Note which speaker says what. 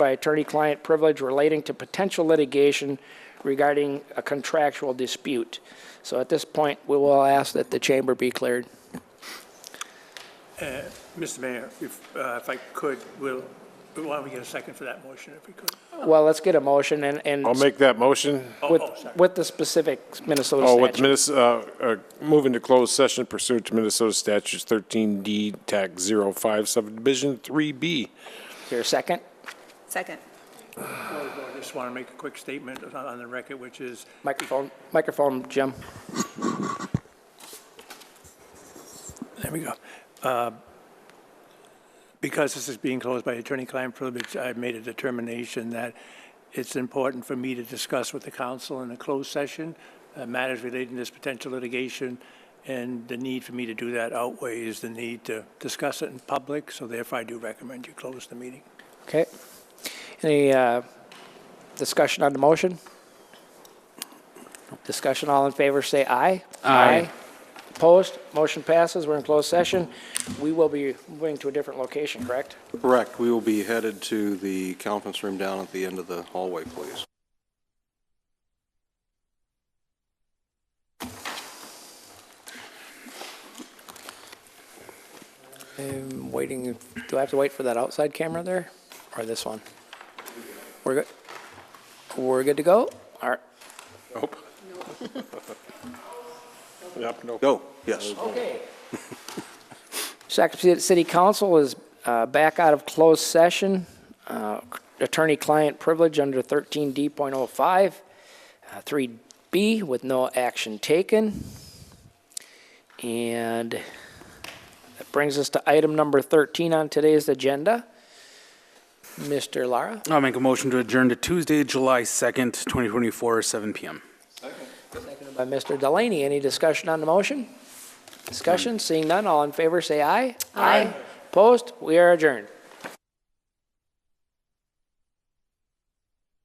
Speaker 1: by attorney-client privilege relating to potential litigation regarding a contractual dispute. So at this point, we will ask that the chamber be cleared.
Speaker 2: Mr. Mayor, if, uh, if I could, will, why don't we get a second for that motion if we could?
Speaker 1: Well, let's get a motion and, and
Speaker 3: I'll make that motion.
Speaker 2: Oh,
Speaker 1: with,
Speaker 2: oh, sorry.
Speaker 1: with the specific Minnesota
Speaker 3: Oh, with
Speaker 1: statute.
Speaker 3: Minnesota, uh, moving to closed session pursuant to Minnesota statutes thirteen D, tac 05 subdivision three B.
Speaker 1: Here, second?
Speaker 4: Second.
Speaker 2: I just want to make a quick statement on, on the record, which is,
Speaker 1: Microphone, microphone, Jim.
Speaker 2: there we go. Uh, Because this is being closed by attorney-client privilege, I've made a determination that it's important for me to discuss with the council in a closed session uh, matters relating to this potential litigation, and the need for me to do that outweighs the need to discuss it in public, so therefore I do recommend you close the meeting.
Speaker 1: Okay. Any uh, discussion on the motion? Discussion, all in favor, say aye. Aye. Opposed? Motion passes. We're in closed session. We will be moving to a different location, correct?
Speaker 5: Correct. We will be headed to the conference room down at the end of the hallway, please.
Speaker 1: I'm Um, waiting, do I have to wait for that outside camera there, or this one? We're good, we're good to go? All right.
Speaker 3: Nope. Yep, nope.
Speaker 5: Go, yes.
Speaker 1: Okay. Shakopee City Council is uh, back out of closed session. Uh, Attorney-client privilege under 13D.05, uh, 3B with no action taken. And that brings us to item number 13 on today's agenda. Mr. Lara,
Speaker 6: I'll make a motion to adjourn to Tuesday, July 2nd, 2024, 7 PM.
Speaker 1: seconded by Mr. Delaney. Any discussion on the motion? Discussion, seeing none, all in favor, say aye. Aye. Opposed? We are adjourned.